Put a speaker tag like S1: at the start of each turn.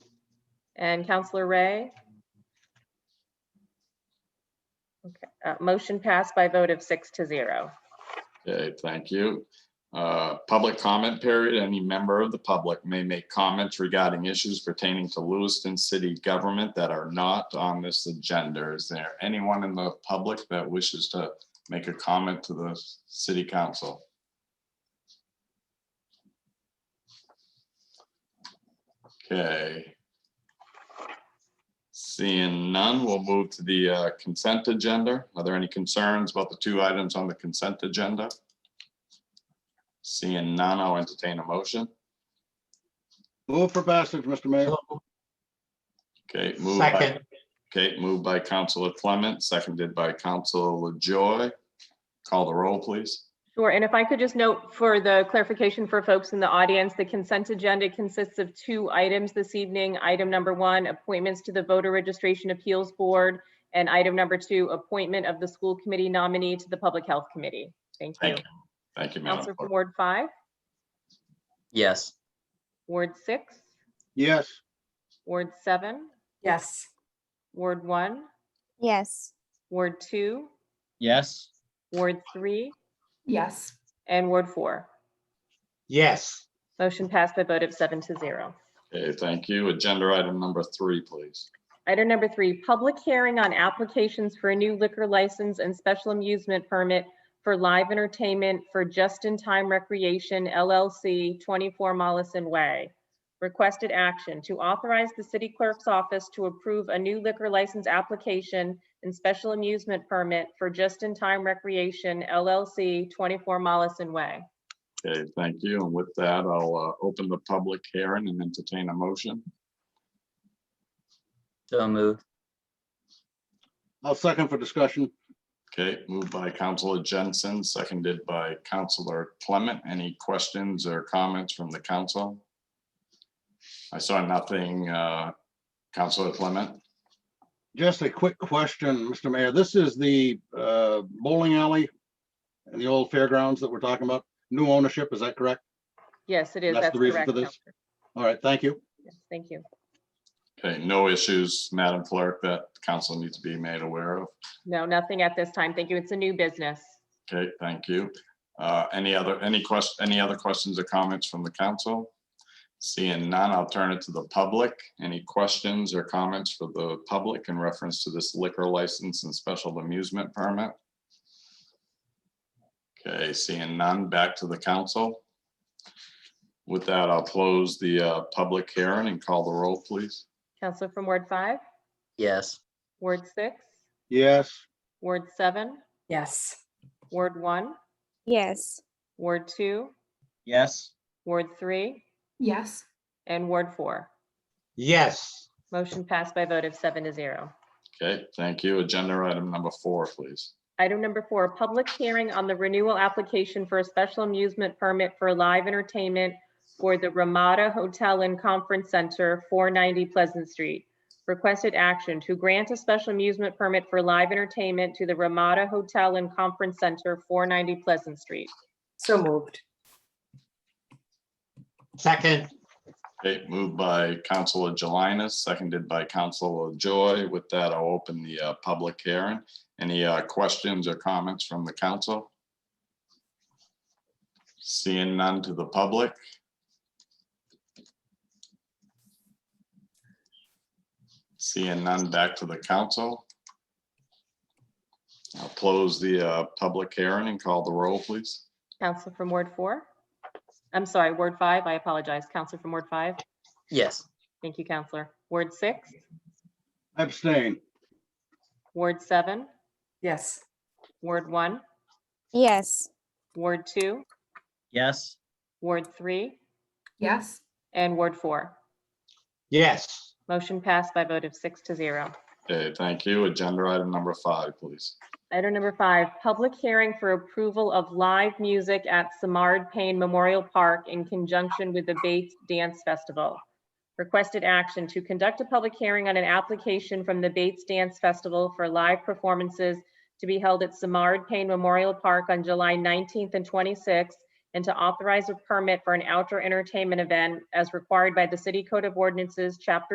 S1: And Counselor Ray? Okay, uh, motion passed by vote of six to zero.
S2: Okay, thank you. Uh, Public comment period. Any member of the public may make comments regarding issues pertaining to Lewiston city government that are not on this agenda. Is there anyone in the public that wishes to make a comment to the city council? Okay. Seeing none, we'll move to the uh, consent agenda. Are there any concerns about the two items on the consent agenda? Seeing none, I'll entertain a motion.
S3: Move for passage, Mr. Mayor.
S2: Okay, moved by,
S4: Second,
S2: okay, moved by Counselor Clement, seconded by Counselor LaJoy. Call the roll, please.
S1: Sure, and if I could just note for the clarification for folks in the audience, the consent agenda consists of two items this evening. Item number one, appointments to the Voter Registration Appeals Board, and item number two, appointment of the school committee nominee to the Public Health Committee. Thank you.
S2: Thank you. Thank you, Madam
S1: Counselor from
S2: Clerk.
S1: Ward five,
S5: Yes,
S1: Ward six,
S3: Yes,
S1: Ward seven,
S6: Yes.
S1: Ward one,
S7: Yes.
S1: Ward two,
S5: yes,
S1: Ward three,
S6: Yes.
S1: and Ward four.
S4: yes,
S1: Motion passed by vote of seven to zero.
S2: Okay, thank you. Agenda item number three, please.
S1: Item number three, public hearing on applications for a new liquor license and special amusement permit for live entertainment for Just in Time Recreation LLC, 24 Mollison Way. Requested action to authorize the city clerk's office to approve a new liquor license application and special amusement permit for Just in Time Recreation LLC, 24 Mollison Way.
S2: Okay, thank you. And with that, I'll uh, open the public hearing and entertain a motion.
S5: so moved,
S3: I'll second for discussion.
S2: Okay, moved by Counselor Jensen, seconded by Counselor Clement. Any questions or comments from the council? I saw nothing. uh, Counselor Clement?
S3: Just a quick question, Mr. Mayor. This is the uh, bowling alley and the old fairgrounds that we're talking about. New ownership, is that correct?
S1: Yes, it is.
S3: That's the reason
S1: correct,
S3: for this?
S1: Counselor.
S3: All right, thank you.
S1: Yes, Thank you.
S2: Okay, no issues, Madam Clerk, that council needs to be made aware of.
S1: No, nothing at this time. Thank you. It's a new business.
S2: Okay, thank you. Uh, Any other, any question, any other questions or comments from the council? Seeing none, I'll turn it to the public. Any questions or comments for the public in reference to this liquor license and special amusement permit? Okay, seeing none, back to the council. With that, I'll close the uh, public hearing and call the roll, please.
S1: Counselor from Ward five?
S5: yes,
S1: Ward six,
S3: Yes,
S1: Ward seven,
S6: Yes.
S1: Ward one,
S7: Yes.
S1: Ward two,
S5: yes,
S1: Ward three,
S6: Yes.
S1: and Ward four.
S4: yes,
S1: Motion passed by vote of seven to zero.
S2: Okay, thank you. Agenda item number four, please.
S1: Item number four, public hearing on the renewal application for a special amusement permit for live entertainment for the Ramada Hotel and Conference Center, 490 Pleasant Street. Requested action to grant a special amusement permit for live entertainment to the Ramada Hotel and Conference Center, 490 Pleasant Street.
S6: So moved.
S4: second,
S2: Okay, moved by Counselor Jelinas, seconded by Counselor Joy. With that, I'll open the uh, public hearing. Any uh, questions or comments from the council? Seeing none to the public. Seeing none back to the council. I'll close the uh, public hearing and call the roll, please.
S1: Counselor from Ward four? I'm sorry, Ward five, I apologize. Counselor from Ward five?
S5: yes,
S1: Thank you, Counselor. Ward six,
S3: abstain.
S1: Ward seven,
S6: Yes.
S1: Ward one,
S7: Yes.
S1: Ward two,
S5: yes,
S1: Ward three,
S6: Yes.
S1: and Ward four.
S4: yes,
S1: Motion passed by vote of six to zero.
S2: Okay, thank you. Agenda item number five, please.
S1: Item number five, public hearing for approval of live music at Samard Payne Memorial Park in conjunction with the Bates Dance Festival. Requested action to conduct a public hearing on an application from the Bates Dance Festival for live performances to be held at Samard Payne Memorial Park on July 19th and 26th, and to authorize a permit for an outdoor entertainment event as required by the City Code of Ordinances, Chapter